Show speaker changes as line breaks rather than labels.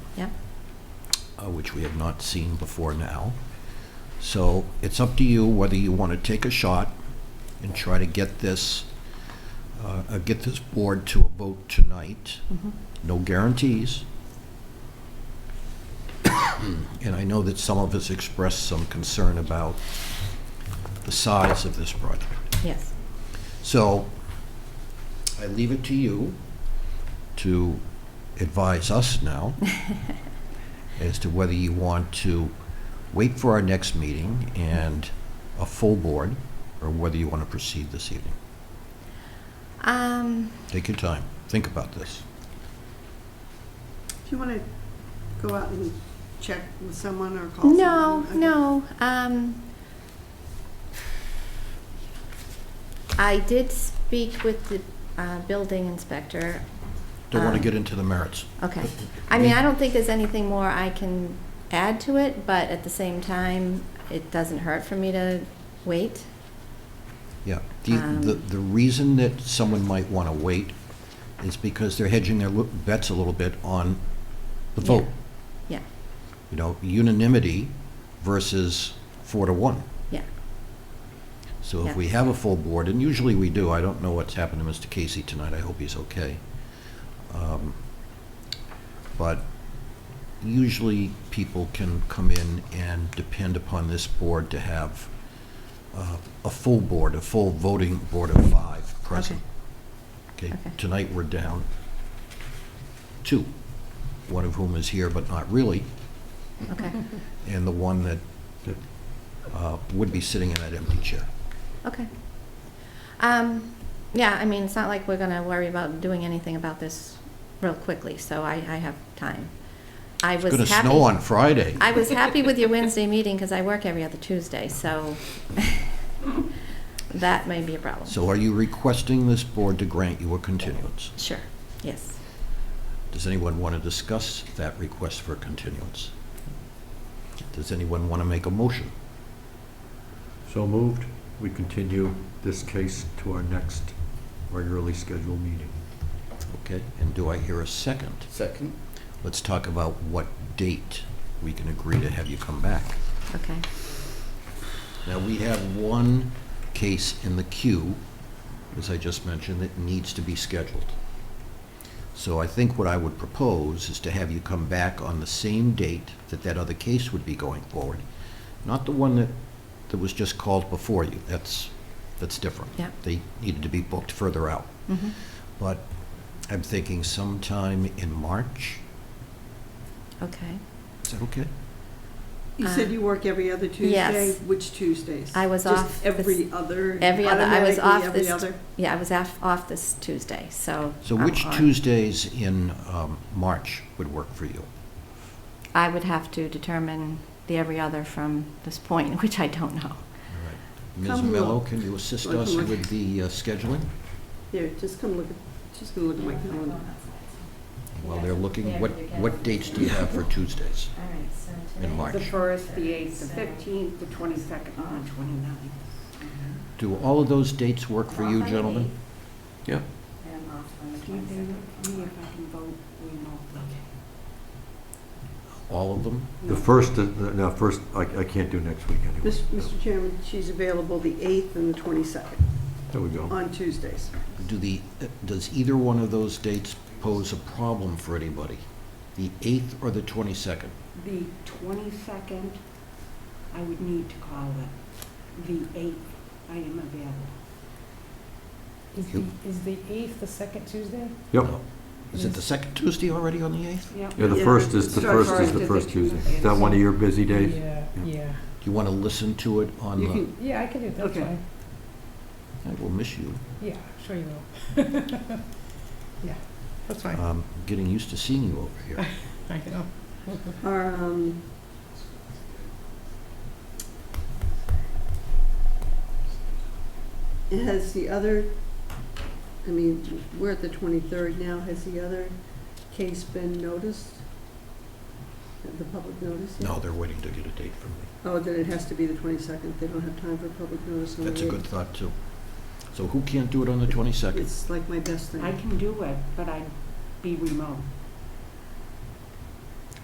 Yeah.
uh, which we have not seen before now. So it's up to you whether you want to take a shot and try to get this, uh, uh, get this board to a vote tonight.
Mm-hmm.
No guarantees. And I know that some of us expressed some concern about the size of this project.
Yes.
So I leave it to you to advise us now as to whether you want to wait for our next meeting and a full board, or whether you want to proceed this evening.
Um,
Take your time, think about this.
If you want to go out and check with someone or call
no,
someone. okay.
no. Um, I did speak with the uh, building inspector.
Don't want to
Um,
get into the merits.
Okay. I mean, I don't think there's anything more I can add to it, but at the same time, it doesn't hurt for me to wait.
Yeah, the, the,
Um,
the reason that someone might want to wait is because they're hedging their lo- bets a little bit on the
Yeah.
vote.
Yeah,
You know, unanimity versus four to one.
yeah.
So
Yeah.
if we have a full board, and usually we do, I don't know what's happened to Mr. Casey tonight, I hope he's okay. Um, But usually people can come in and depend upon this board to have uh, a full board, a full voting board of five present. Okay,
Okay.
tonight we're down two, one of whom is here but not really,
Okay.
and the one that uh, would be sitting in that empty chair.
Okay. Um, yeah, I mean, it's not like we're gonna worry about doing anything about this real quickly, so I, I have time. I was
It's going to
happy.
snow on Friday.
I was happy with your Wednesday meeting, because I work every other Tuesday, so that may be a problem.
So are you requesting this board to grant you a continuance?
Sure, yes.
Does anyone want to discuss that request for continuance? Does anyone want to make a motion?
So moved. We continue this case to our next regularly scheduled meeting.
Okay, and do I hear a second?
Second.
Let's talk about what date we can agree to have you come back.
Okay,
Now, we have one case in the queue, as I just mentioned, that needs to be scheduled. So I think what I would propose is to have you come back on the same date that that other case would be going forward, not the one that, that was just called before you. That's, that's different.
Yeah.
They needed to be booked further out.
Mm-hmm.
mhm,
But I'm thinking sometime in March.
okay.
Is that okay?
You
Uh,
said you work every other Tuesday?
yes.
Which Tuesdays?
I was
Just
off this-
every other?
Every other, I was
automatically
off
every
this,
other?
yeah, I was off, off this Tuesday, so.
So
I'm
which
on.
Tuesdays in um, March would work for you?
I would have to determine the every other from this point, which I don't know.
All right. Ms.
Come
Mello,
look.
can you assist
Look,
us
look.
with the uh, scheduling?
Here, just come look, at- just come look at my calendar.
While they're looking, what, what dates do you have for Tuesdays in March?
The first, the eighth, the
fifteenth.
fifteenth, the twenty-second, and the twenty-ninth.
Do all of those dates work for you, gentlemen?
Yeah.
And off on the
Do you think
twenty-second.
me
if I can vote remotely?
All of them?
The first, uh, no, first, I, I can't do next week anyway.
Mis- Mr. Chairman, she's available the 8th and the 22nd
There we go.
on Tuesdays.
Do the, does either one of those dates pose a problem for anybody? The 8th or the 22nd?
The twenty-second, I would need to call it. The eighth, I am available.
Is
You-
the, is the 8th the second Tuesday?
Yep.
No. Is it the second Tuesday already on the 8th?
Yeah, the
Yeah,
first is, the
the
first
first
is the
is
first
the
Tuesday.
Tuesday.
Is that one of your busy days?
Yeah,
Yeah.
yeah.
Do you want to listen to it on
You
the,
can,
Yeah, I can do it, that's
Okay.
fine.
I will miss you.
Yeah, sure you will. Yeah, that's fine.
Um, Getting used to seeing you over here.
I know.
are, um, has the other, I mean, we're at the 23rd now, has the other case been noticed? Have The public notice? yet?
No, they're waiting to get a date from me.
Oh, then it has to be the 22nd, they don't have time for public notice on the
That's a good
8th.
thought, too. So who can't do it on the 22nd?
It's like my best thing.
I can do it, but I'd be remote.